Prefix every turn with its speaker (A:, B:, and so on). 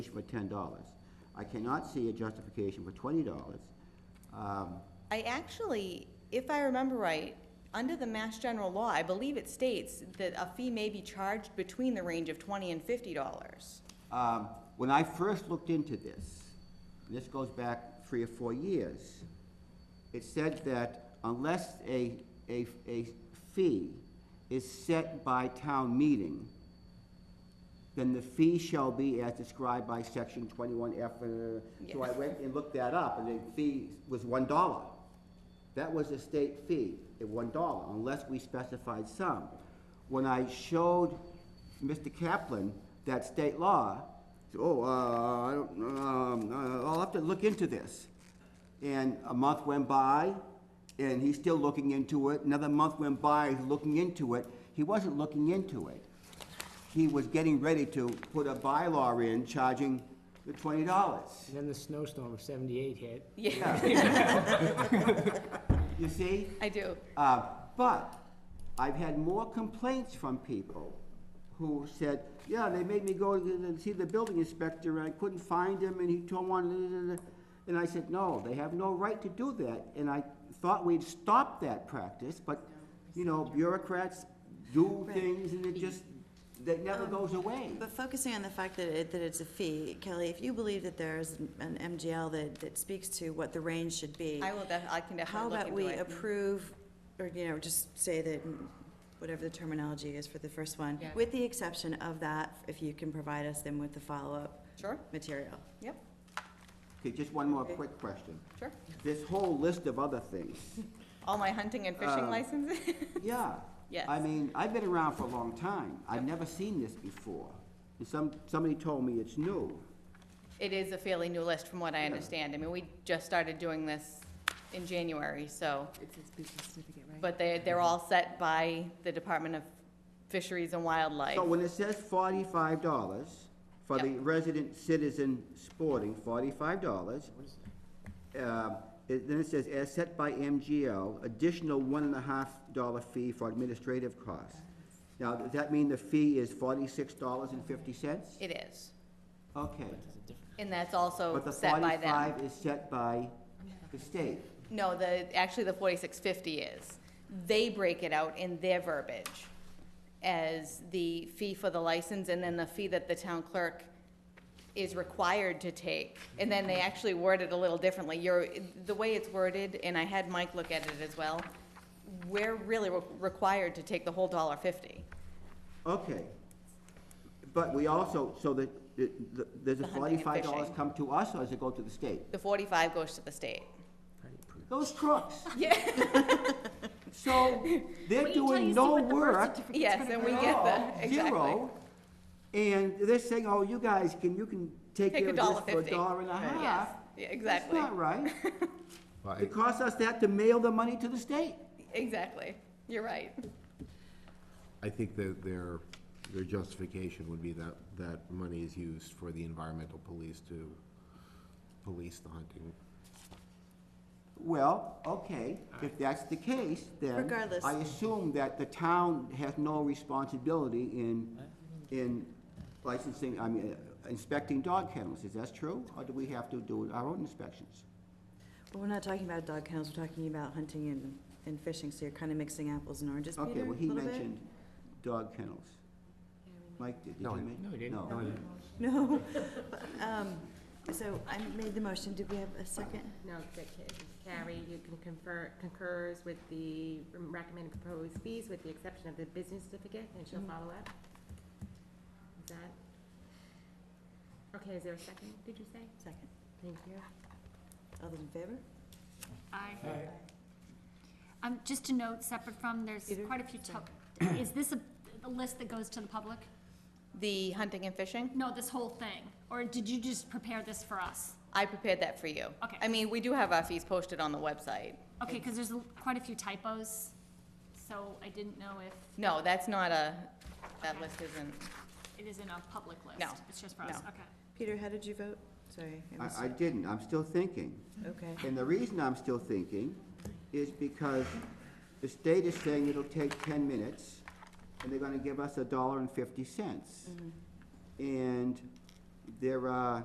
A: for ten dollars. I cannot see a justification for twenty dollars. Um,
B: I actually, if I remember right, under the Mass General Law, I believe it states that a fee may be charged between the range of twenty and fifty dollars.
A: Um, when I first looked into this, and this goes back three or four years, it said that unless a, a, a fee is set by town meeting, then the fee shall be as described by section twenty-one F, uh, so I
B: Yes.
A: went and looked that up, and the fee was one dollar. That was a state fee, at one dollar, unless we specified some. When I showed Mr. Kaplan that state law, he said, oh, uh, I don't, um, uh, I'll have to look into this. And a month went by, and he's still looking into it. Another month went by, he's looking into it. He wasn't looking into it. He was getting ready to put a bylaw in charging the twenty dollars.
C: Then the snowstorm of seventy-eight hit.
B: Yeah,
A: You see?
B: I do.
A: Uh, But I've had more complaints from people who said, yeah, they made me go to- and see the building inspector, and I couldn't find him, and he told one, and I said, no, they have no right to do that. And I thought we'd stop that practice, but, you know, bureaucrats do
D: Right.
A: things, and it just, that never
D: Um,
A: goes away.
D: But focusing on the fact that it, that it's a fee, Kelly, if you believe that there's an MGL that, that speaks to what the range should be,
B: I will, def- I can
D: how
B: definitely look
D: about
B: into
D: we
B: it.
D: approve, or, you know, just say that, mm, whatever the terminology is for the first one,
B: Yeah.
D: with the exception of that, if you can provide us then with the follow-up
B: Sure,
D: material.
B: yep,
A: Okay, just one more
D: Okay.
A: quick question.
B: sure.
A: This whole list of other things,
B: All my hunting and fishing
A: Um,
B: licenses?
A: Yeah.
B: Yes.
A: I mean, I've been around for a long time. I've never seen this before. And some, somebody told me it's new.
B: It is a fairly new list from what I understand. I mean, we just started doing this in January, so.
E: It's its business certificate, right?
B: But they, they're all set by the Department of Fisheries and Wildlife.
A: So when it says forty-five dollars for the
B: Yep.
A: resident citizen sporting, forty-five dollars, then it says, as set by MGL, additional one and a half dollar fee for administrative costs. Now, does that mean the fee is forty-six dollars and fifty cents?
B: It is.
A: Okay.
B: And that's also
A: But the
B: set by them.
A: forty-five is set by the state.
B: No, the, actually, the forty-six fifty is. They break it out in their verbiage as the fee for the license and then the fee that the town clerk is required to take. And then they actually word it a little differently. You're, the way it's worded, and I had Mike look at it as well, we're really re- required to take the whole dollar fifty.
A: Okay. But we also, so the, the- the- does the
B: The hunting and
A: forty-five dollars
B: fishing.
A: come to us or does it go to the state?
B: The forty-five goes to the state.
A: Those crooks.
B: Yeah.
A: So they're doing no work.
B: Yes, and we get the,
A: at all,
B: exactly.
A: Zero. And they're saying, oh, you guys can, you can take
B: Take
A: care
B: a
A: of
B: dollar
A: this for a
B: fifty.
A: dollar and a half.
B: Yes, yeah, exactly,
A: That's not right.
F: Well, I-
A: It costs us that to mail the money to the state.
B: exactly. You're right.
F: I think that their, their justification would be that, that money is used for the environmental police to police the hunting.
A: Well, okay, if that's the case, then.
D: Regardless.
A: I assume that the town has no responsibility in, in licensing, I mean, uh, inspecting dog kennels, is that true? Or do we have to do our own inspections?
D: But we're not talking about dog kennels, we're talking about hunting and, and fishing, so you're kind of mixing apples and oranges, Peter,
A: Okay,
D: a
A: well, he
D: little bit?
A: mentioned dog kennels. Mike, did did
F: No,
A: he
F: I-
A: mention?
C: no, he didn't.
A: No.
D: No. Um, so I made the motion, did we have a second?
E: No, that ca- Carrie, you can confer, concurs with the recommended proposed fees with the exception of the business certificate, and she'll
D: Mhm.
E: follow up. Is that? Okay, is there a second, did you say?
D: Second.
E: Thank you.
D: All those in favor?
G: Aye. Um, just a note, separate from, there's
D: Peter?
G: quite a few, to- is this a, a list that goes to the public?
B: The hunting and fishing?
G: No, this whole thing, or did you just prepare this for us?
B: I prepared that for you.
G: Okay.
B: I mean, we do have our fees posted on the website.
G: Okay, because there's a- quite a few typos, so I didn't know if
B: No, that's not a, that list isn't,
G: it is in a public list.
B: No,
G: It's just for us,
B: no.
G: okay.
D: Peter, how did you vote? Sorry. I missed-
A: I, I didn't, I'm still thinking.
D: Okay.
A: And the reason I'm still thinking is because the state is saying it'll take ten minutes, and they're gonna give us a dollar and fifty cents. And there are